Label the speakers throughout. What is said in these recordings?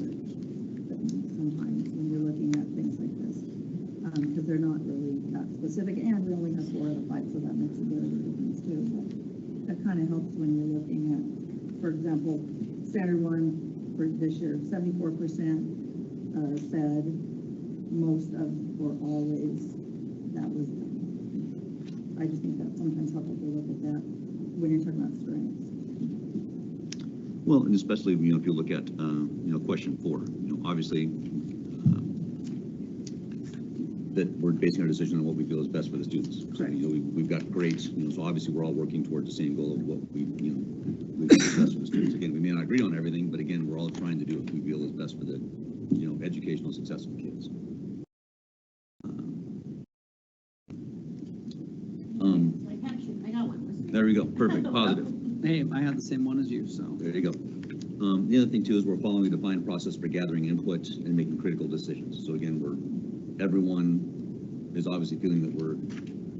Speaker 1: um, specific, and we only have four out of five, so that makes a bit of a difference too. But That kind of helps when you're looking at, for example, standard one for this year, seventy-four percent uh, said most of or always, that was them. I just think that's sometimes helpful to look at that when you're talking about strengths.
Speaker 2: Well, and especially, you know, if you look at, uh, you know, question four, you know, obviously, um, that we're basing our decision on what we feel is best for the students. So, You know, we- we've got grades, you know, so obviously, we're all working towards the same goal of what we, you know, we feel is best for the students. Again, we may not agree on everything, but again, we're all trying to do what we feel is best for the, you know, educational success of the kids. Um,
Speaker 3: Like, actually, I got one.
Speaker 2: There we go, perfect, positive.
Speaker 4: Hey, I had the same one as you, so.
Speaker 2: There you go. Um, the other thing too is we're following a defined process for gathering input and making critical decisions. So again, we're, everyone is obviously feeling that we're,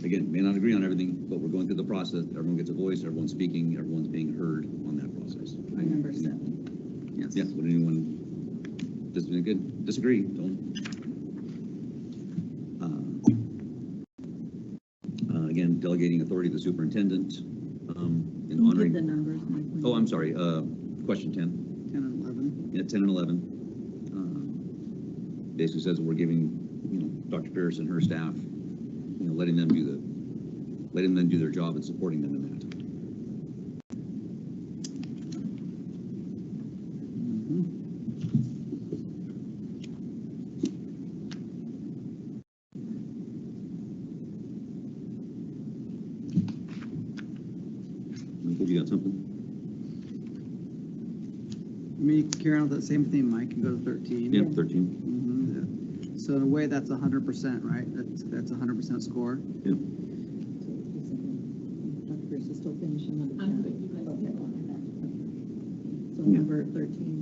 Speaker 2: again, may not agree on everything, but we're going through the process. Everyone gets a voice, everyone's speaking, everyone's being heard on that process.
Speaker 1: I remember seven.
Speaker 4: Yes.
Speaker 2: Yeah, would anyone dis- good- disagree? Don't. Uh, uh, Again, delegating authority to the superintendent, um,
Speaker 1: You did
Speaker 2: and
Speaker 1: the
Speaker 2: honoring,
Speaker 1: numbers, Mike. when
Speaker 2: oh,
Speaker 1: you-
Speaker 2: I'm sorry, uh, question ten.
Speaker 4: Ten and eleven.
Speaker 2: Yeah, 10 and 11. um, Basically says we're giving, you know, Dr. Pierce and her staff, you know, letting them do the, letting them do their job and supporting them in that.
Speaker 4: Mhm. Mm-hmm.
Speaker 2: Michael, you got something?
Speaker 4: I mean, you can carry on with that same theme, Mike, and go to thirteen.
Speaker 2: Yeah, 13.
Speaker 4: Mhm, yeah. So in a way, that's a hundred percent, right? That's, that's a hundred percent score.
Speaker 1: So it's seven. Dr. Pierce is still finishing up.
Speaker 3: I'm good, you guys
Speaker 1: Okay.
Speaker 3: can go on
Speaker 1: So number thirteen,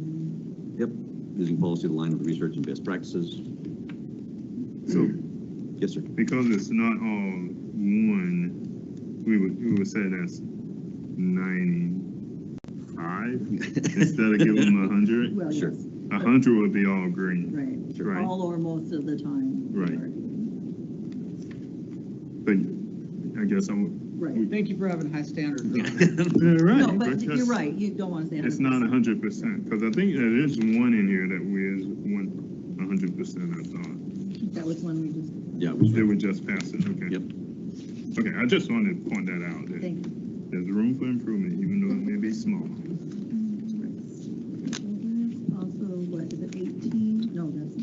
Speaker 2: Using policy to align with research and best practices.
Speaker 5: So
Speaker 2: Yes, sir.
Speaker 5: because it's not all one, we would, we would say that's ninety-five instead of giving them a hundred.
Speaker 1: well,
Speaker 2: Sure.
Speaker 1: yes,
Speaker 5: A hundred would be all green,
Speaker 1: right,
Speaker 5: right?
Speaker 1: all or most of the time. we
Speaker 5: Right.
Speaker 1: are doing
Speaker 5: But I guess I would.
Speaker 1: that. Right,
Speaker 4: Thank you for having high standards.
Speaker 5: Yeah,
Speaker 1: no,
Speaker 5: right,
Speaker 1: but you're
Speaker 5: because
Speaker 1: right, you don't want to say.
Speaker 5: It's not a hundred percent, because I think there is one in here that we is one, a hundred percent, I thought.
Speaker 1: That was one we just,
Speaker 2: Yeah.
Speaker 5: They would just pass it, okay?
Speaker 2: Yep.
Speaker 5: Okay, I just wanted to point that out, that
Speaker 1: thank you.
Speaker 5: there's room for improvement, even though it may be small.
Speaker 1: Also, what is it, eighteen? No, that's.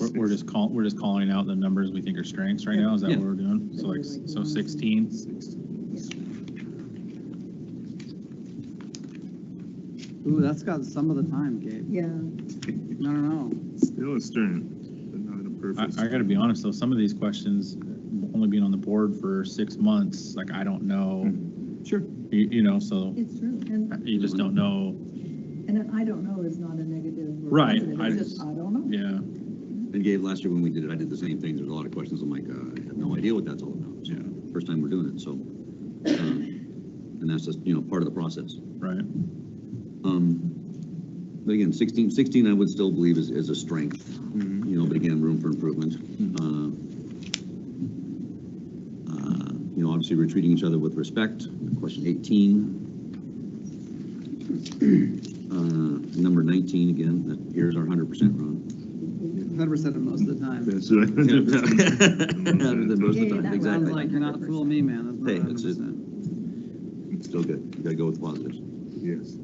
Speaker 6: We're, we're just call, we're just calling out the numbers we think are strengths right now, is that
Speaker 2: Yeah.
Speaker 6: what we're doing? So like, s- so sixteen,
Speaker 4: Ooh, that's got some of the time, Gabe.
Speaker 1: Yeah,
Speaker 4: No, no, no.
Speaker 5: Still a strength, but not a
Speaker 6: I,
Speaker 5: perfect.
Speaker 6: I gotta be honest though, some of these questions, only being on the board for six months, like I don't know,
Speaker 2: Mm-hmm. Sure.
Speaker 6: you, you know, so
Speaker 1: it's true, and,
Speaker 6: you just don't know,
Speaker 1: and an I don't know is not a negative. or
Speaker 6: Right,
Speaker 1: positive,
Speaker 6: I
Speaker 1: It's
Speaker 6: just-
Speaker 1: just, I don't know.
Speaker 6: yeah.
Speaker 2: And Gabe, last year when we did it, I did the same thing. There's a lot of questions. I'm like, uh, I have no idea what that's all about. Yeah. First time we're doing it, so. um, And that's just, you know, part of the process.
Speaker 6: Right,
Speaker 2: Um, But again, 16, 16 I would still believe is, is a strength,
Speaker 5: Mhm.
Speaker 2: you know, but again, room for improvement. Uh, uh, You know, obviously, we're treating each other with respect, question 18. Uh, Number 19, again, that here's our 100% run.
Speaker 4: Hundred percent of most of the time.
Speaker 5: That's right.
Speaker 2: Rather than most of
Speaker 1: Yeah,
Speaker 2: the
Speaker 1: that
Speaker 2: time,
Speaker 4: Sounds
Speaker 2: exactly.
Speaker 4: like you're not fooling me, man. That's not
Speaker 2: Hey,
Speaker 4: hundred
Speaker 2: that's it.
Speaker 4: percent.
Speaker 2: Still good, you gotta go with positives.
Speaker 5: Yes.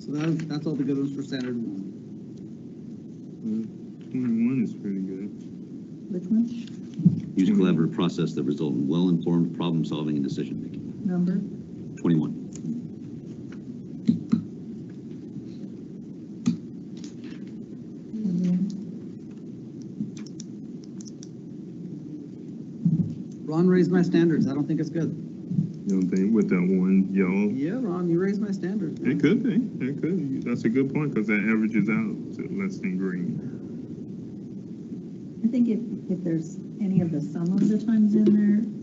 Speaker 4: So that's, that's all the good ones for standard one.
Speaker 5: Twenty-one is pretty good.
Speaker 1: Which one?
Speaker 2: Use collaborative process that result in well-informed problem-solving and decision-making.
Speaker 1: Number?
Speaker 2: 21.
Speaker 4: Ron raised my standards. I don't think it's
Speaker 2: Mm-hmm.
Speaker 4: good.
Speaker 5: You don't think with that one yellow?
Speaker 4: Yeah, Ron, you raised my standards. man.
Speaker 5: It could be, it could. That's a good point, because that averages out to less than green.
Speaker 1: I think if, if there's any of the some of the times in there,